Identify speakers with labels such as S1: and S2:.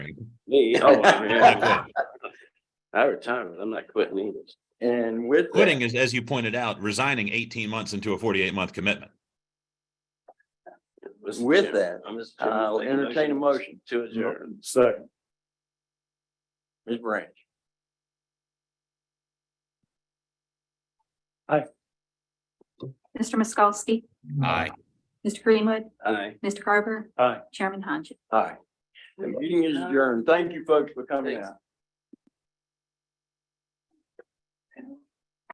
S1: Me, oh, I
S2: Like
S1: mean,
S2: that.
S1: I retired, I'm not quitting either.
S2: And with that-
S3: Quitting is, as you pointed out, resigning eighteen months into a forty-eight month commitment.
S1: Mr.
S2: With
S1: Chairman,
S2: that, uh,
S1: I'm just-
S2: I'll
S1: I'll
S2: entertain a motion.
S1: To adjourn.
S2: Second. Ms. Branch.
S4: Mr. Miskowski,
S3: Aye.
S4: Mr. Greenwood,
S1: Aye.
S4: Mr. Garber.
S2: Aye.
S4: Chairman Hodges.
S2: Aye. The meeting is adjourned. Thank you, folks, for coming
S1: Thanks.
S2: out.